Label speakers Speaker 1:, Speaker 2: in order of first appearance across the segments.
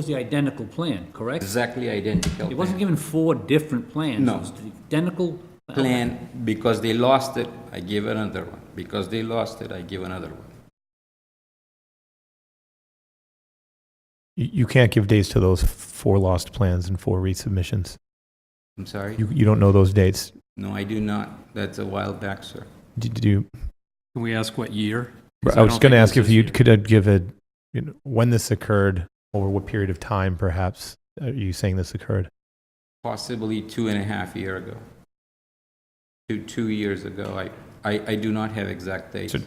Speaker 1: was the identical plan, correct?
Speaker 2: exactly identical.
Speaker 1: It wasn't given four different plans.
Speaker 2: No.
Speaker 1: It was the identical.
Speaker 2: Plan, because they lost it, I give another one. Because they lost it, I give another one.
Speaker 3: You, you can't give dates to those four lost plans and four resubmissions.
Speaker 2: I'm sorry?
Speaker 3: You, you don't know those dates.
Speaker 2: No, I do not. That's a while back, sir.
Speaker 3: Did, did you?
Speaker 4: Can we ask what year?
Speaker 3: I was going to ask if you
Speaker 4: could.
Speaker 3: could uh, give a you know, when this occurred over what period of time, perhaps. Are you saying this occurred?
Speaker 2: Possibly two and a half year ago. Two, two years ago. I, I, I do not have exact dates.
Speaker 3: So-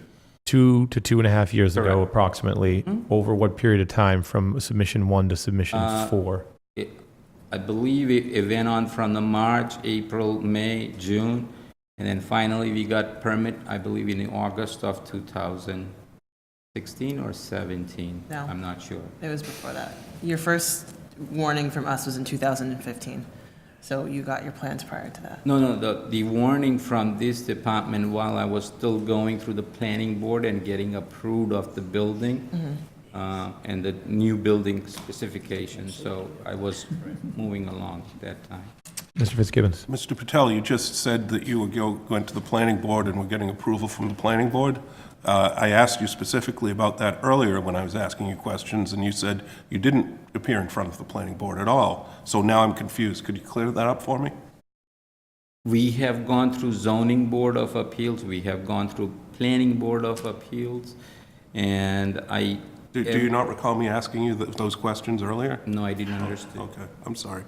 Speaker 3: Two to two and a half years ago,
Speaker 2: Correct.
Speaker 3: approximately.
Speaker 2: Mhm.
Speaker 5: Mm-hmm.
Speaker 3: Over what period of time from submission one to submission
Speaker 2: Uh,
Speaker 3: four?
Speaker 2: It- I believe it, it went on from the March, April, May, June, and then finally we got permit, I believe in August of 2016 or 17.
Speaker 6: No.
Speaker 2: I'm not sure.
Speaker 6: It was before that. Your first warning from us was in 2015, so you got your plans prior to that.
Speaker 2: No, no, the, the warning from this department while I was still going through the planning board and getting approved of the building, uh, and the new building specification, so I was moving along at that time.
Speaker 3: Mr. Fitzgibbons.
Speaker 5: Mr. Patel, you just said that you were go- going to the planning board and were getting approval from the planning board. Uh, I asked you specifically about that earlier when I was asking you questions, and you said you didn't appear in front of the planning board at all. So now I'm confused. Could you clear that up for me?
Speaker 2: We have gone through zoning board of appeals, we have gone through planning board of appeals, and I.
Speaker 5: Do do you not recall me asking you th- those questions earlier?
Speaker 2: No, I didn't understand.
Speaker 5: Okay, I'm sorry.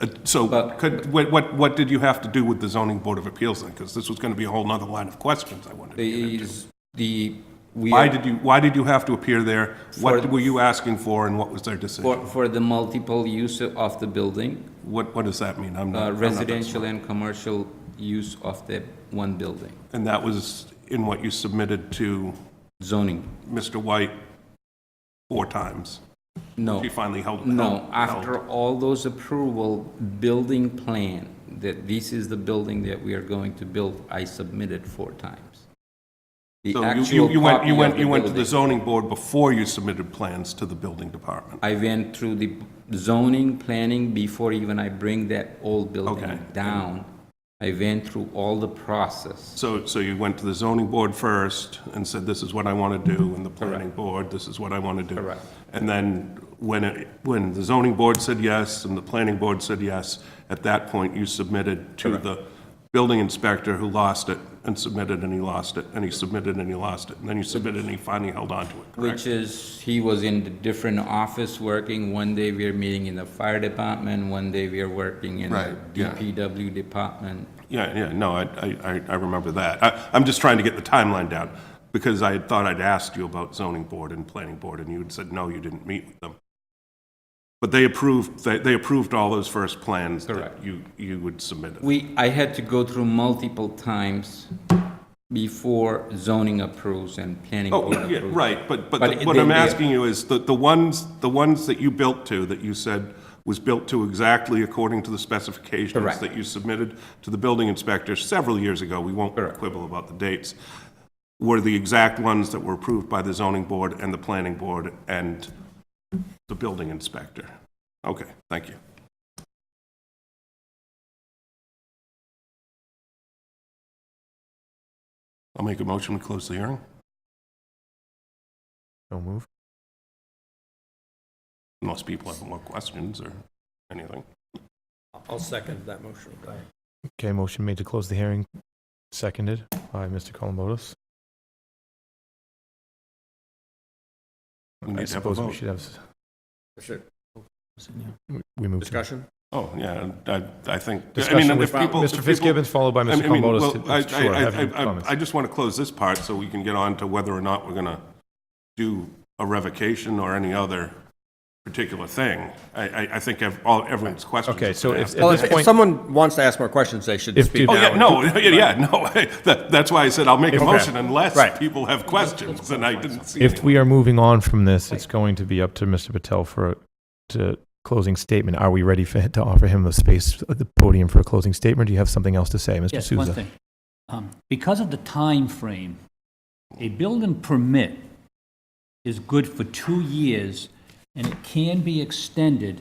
Speaker 5: Uh, So
Speaker 2: But-
Speaker 5: could, what- what, what did you have to do with the zoning board of appeals then? Because this was going to be a whole nother line of questions I wanted to get into.
Speaker 2: The, the, we.
Speaker 5: Why
Speaker 2: are-
Speaker 5: did you, why did you have to appear there?
Speaker 2: For-
Speaker 5: What were you asking for and what was their decision?
Speaker 2: For, for the multiple use of the building,
Speaker 5: What, what does that mean? I'm not-
Speaker 2: uh,
Speaker 5: I'm not that
Speaker 2: residential
Speaker 5: smart.
Speaker 2: and commercial use of the one building,
Speaker 5: And that was in what you submitted to
Speaker 2: zoning.
Speaker 5: Mr. White four times?
Speaker 2: No,
Speaker 5: She finally held.
Speaker 2: no,
Speaker 5: held- held.
Speaker 2: after all those approval, building plan, that this is the building that we are going to build, I submitted four times. The
Speaker 5: So you- you,
Speaker 2: actual
Speaker 5: you went,
Speaker 2: copy
Speaker 5: you
Speaker 2: of
Speaker 5: went,
Speaker 2: the
Speaker 5: you went to the
Speaker 2: building.
Speaker 5: zoning board before you submitted plans to the building department?
Speaker 2: I went through the zoning, planning, before even I bring that old
Speaker 5: Okay.
Speaker 2: building down. I went through all the process.
Speaker 5: So, so you went to the zoning board first and said, this is what I want to do, and the planning board, this is what I want to do.
Speaker 2: Correct.
Speaker 5: And then when, it- when the zoning board said yes and the planning board said yes, at that point, you submitted to the building inspector who lost it and submitted and he lost it, and he submitted and he lost it, and then you submitted and he finally held on to it,
Speaker 2: Which
Speaker 5: correct?
Speaker 2: is, he was in the different office working, one day we are meeting in the fire department, one day we are working in the
Speaker 5: Right, yeah.
Speaker 2: DPW department.
Speaker 5: Yeah, yeah, no, I, I, I- I remember that. I, I'm just trying to get the timeline down, because I had thought I'd asked you about zoning board and planning board, and you had said, no, you didn't meet with them. But they approved, they, they approved all those first plans that
Speaker 2: Correct.
Speaker 5: you, you would submit.
Speaker 2: We, I had to go through multiple times before zoning approves and planning board
Speaker 5: Oh, yeah,
Speaker 2: approves.
Speaker 5: right, but, but
Speaker 2: But
Speaker 5: the- what
Speaker 2: they-
Speaker 5: I'm
Speaker 2: they-
Speaker 5: asking you is, the, the ones, the ones that you built to, that you said was built to exactly according to the specifications
Speaker 2: Correct.
Speaker 5: that you submitted to the building inspector several years ago, we won't
Speaker 2: Correct.
Speaker 5: quibble about the dates, were the exact ones that were approved by the zoning board and the planning board and the building inspector. Okay, thank you. I'll make a motion to close the hearing.
Speaker 3: No move.
Speaker 5: Most people have more questions or anything.
Speaker 4: I'll second that motion.
Speaker 3: Okay, motion made to close the hearing, seconded by Mr. Columbotus.
Speaker 5: We
Speaker 3: I
Speaker 5: need to have a
Speaker 3: suppose we
Speaker 5: vote.
Speaker 3: should have. s- we- We move to.
Speaker 4: Discussion?
Speaker 5: Oh, yeah, I, I think, I mean,
Speaker 3: Discussion
Speaker 5: if
Speaker 3: with
Speaker 5: people. if
Speaker 3: Mr.
Speaker 5: people-
Speaker 3: Fitzgibbons, followed by
Speaker 5: I
Speaker 3: Mr.
Speaker 5: mean, I mean,
Speaker 3: Columbotus.
Speaker 5: well,
Speaker 3: to-
Speaker 5: I,
Speaker 3: Sure, have your
Speaker 5: I- I, I,
Speaker 3: comments.
Speaker 5: I just want to close this part so we can get on to whether or not we're going to do a revocation or any other particular thing. I, I, I think ev- all, everyone's questions.
Speaker 3: Okay,
Speaker 5: have
Speaker 3: so
Speaker 5: been
Speaker 3: if-
Speaker 5: asked.
Speaker 3: at
Speaker 7: Well,
Speaker 3: this
Speaker 7: if, if
Speaker 3: point,
Speaker 7: someone wants to ask more questions, they should
Speaker 3: If
Speaker 7: speak
Speaker 3: the-
Speaker 5: Oh,
Speaker 7: now.
Speaker 5: yeah, no, yeah, yeah, no, that, that's why I said I'll make a
Speaker 3: If-
Speaker 5: motion
Speaker 3: Right.
Speaker 5: unless
Speaker 3: Right.
Speaker 5: people have questions, and I didn't see
Speaker 3: if
Speaker 5: any.
Speaker 3: we are moving on from this, it's going to be up to Mr. Patel for a- to closing statement. Are we ready for, to offer him the space at the podium for a closing statement? Do you have something else to say, Mr.
Speaker 1: Yes, one
Speaker 3: Souza?
Speaker 1: thing. Um, Because of the time frame, a building permit is good for two years and it can be extended